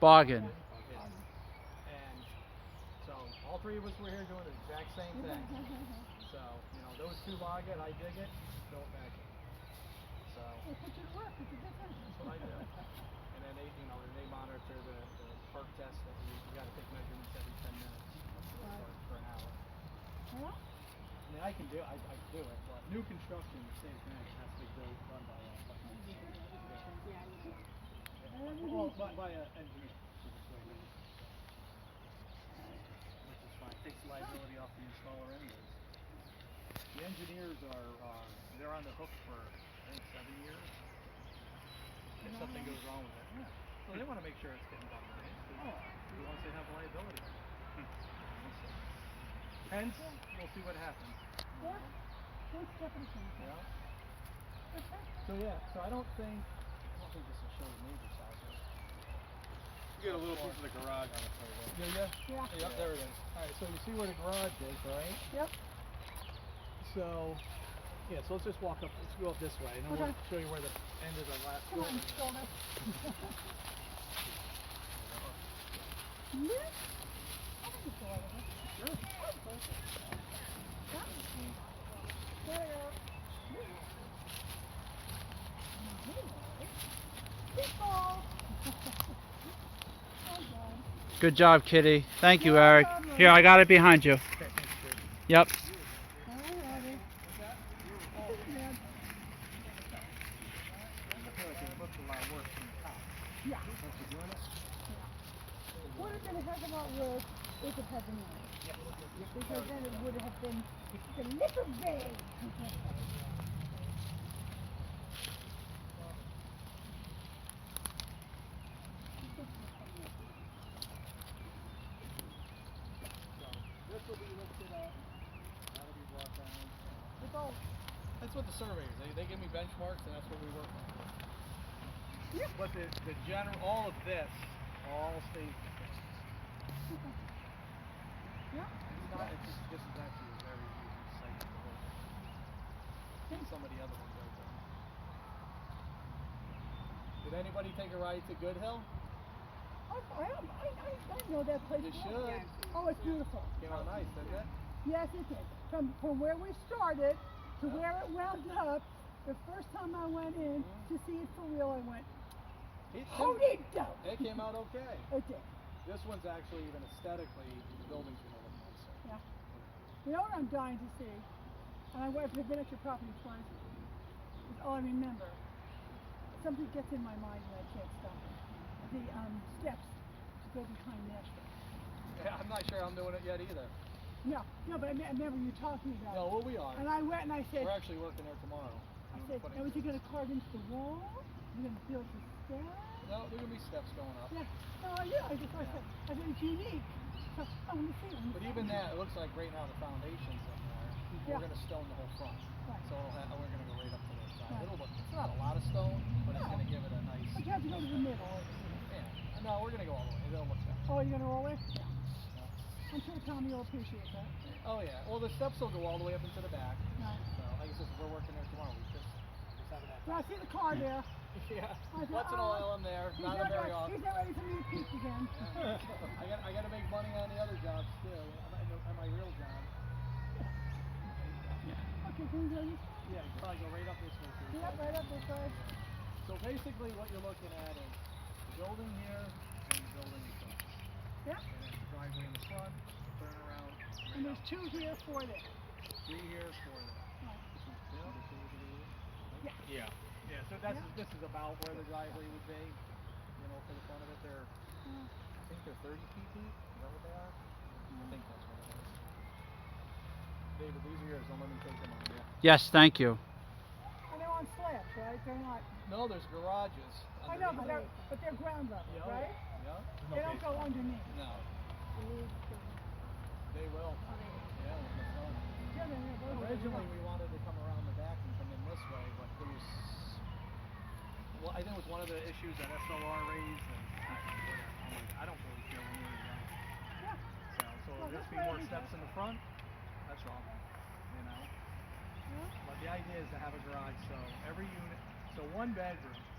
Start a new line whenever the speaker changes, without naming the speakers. Bargain.
And so all three of us were here doing the exact same thing. so, you know, those two log it, I dig it, don't back it. So
They put you to work, it's a good thing.
that's what I do. And then they, you know, they monitor the, the perk test that we, we gotta take measurements every ten minutes for, for an hour.
Well,
I mean, I can do, I, I can do it, but new construction, the same thing, it has to be built, run by a, by an engineer. Yeah. Well, by, by an engineer. Which is fine, takes liability off the installer anyways. The engineers are, uh, they're on the hook for, I think, seven years. If something goes wrong with it, yeah. Well, they wanna make sure it's getting done right, because once they have liability. So, Hence, we'll see what happens.
yeah, good step in things.
Yeah. So yeah, so I don't think, I don't think this will show the neighbor's house.
You get a little piece of the garage on the photo.
Yeah, yeah.
Yeah.
Yep, there it is. Alright, so you see where the garage is, right?
Yep.
So, yeah, so let's just walk up, let's go up this way, and then
Okay.
we'll show you where the end of the last
Come on,
building is.
shoulder. Yeah? I think it's all right. There you go. Meatball. Oh, God.
Good job, Kitty. Thank you, Eric. Here, I got it behind you.
I
Yep.
Alrighty. Yeah.
feel like it looks a lot worse from the top.
Yeah.
Once you're doing it,
Would have been a heck of a lot worse if it had been me. Because then it would have been the little bay.
this will be lifted up, that'll be brought down.
It's all,
That's what the surveyors, they, they give me benchmarks and that's what we work on. But the, the general, all of this, all stays the same.
yeah,
It's not, it's just, this is actually a very easy site to build. Think some of the other ones out there. Did anybody take a ride to Good Hill?
I, I, don't- I, I, I know that place.
You
well.
should.
Oh, it's beautiful.
Came out nice, didn't it?
Yes, it did. From, from where we started to where it wound up, the first time I went in to see it for real, I went,
It
hold
came-
it down.
It came out okay.
It did.
This one's actually even aesthetically, the buildings are looking nicer.
Yeah. You know what I'm dying to see? And I went, I've been at your property twice. It's all I remember. Something gets in my mind and I can't stop it. The um, steps to go behind Nashville.
Yeah, I'm not sure I'm doing it yet either.
No, no, but I, me- I remember you talking about
No,
it.
well, we are.
And I went and I said,
We're actually working there tomorrow.
I
We're
said,
putting-
now is it going to carve into the wall? Is it going to build the steps?
No, there're gonna be steps going up.
Yeah. No, I knew. I just I said, I said, it's unique. So, I want to see it. I wanna
But
see it."
even that, it looks like right now the foundation's in there.
Yeah.
We're gonna stone the whole front.
Right.
So it'll have, we're gonna go right up to the side.
Right.
It'll look, it's not a lot of stone, but it's gonna give it a nice,
But you have to go to the
Oh,
middle.
yeah. No, we're gonna go all the way. It'll look better.
Oh, you're going to roll it? Yeah.
Yeah.
I'm sure Tommy will appreciate that.
Oh, yeah. Well, the steps will go all the way up into the back.
Right.
So like I said, we're working there tomorrow. We just, we just haven't had
But I see the car there.
Yeah.
I said,
Once in a
"Oh,
while I'm there,
He's
not
not,
very
ready,
often.
he's not ready to meet Pete again.
I got I got to make money on the other jobs too. On my, on my real job.
Okay, can you go? this
Yeah, you probably go right up this way.
way?
Too.
Yep, right up this way.
So basically, what you're looking at is the building here and the building in front.
Yep.
And then the driveway in the front, turn around,
And
right up.
there's two here, four there.
Three here, four there.
Right.
Yeah.
Yeah. So that's this is about where the driveway would be. You know, for the front of it, they're I think they're 30 feet deep. Is that what they are? I think that's what it is. David, these are yours. Don't let me take them on you.
Yes, thank you.
And they're on slabs, right? They're not.
No, there's garages.
I know, but
underneath
they're,
it.
but they're ground level,
Yeah, oh
right?
Yeah. yeah.
They don't go underneath.
No, they will.
Oh,
Yeah, with the sun.
Yeah, they're- they're both-
Originally, we wanted to come around the back and come in this way, but there was, well, I think it was one of the issues that SLR raised, and I, I'm like, I don't really care when we're done.
Yeah.
So, so
Well,
it'll just be
this way
more
we
steps
go.
in the front, that's all, you know?
Yeah.
But the idea is to have a garage, so every unit, so one bedroom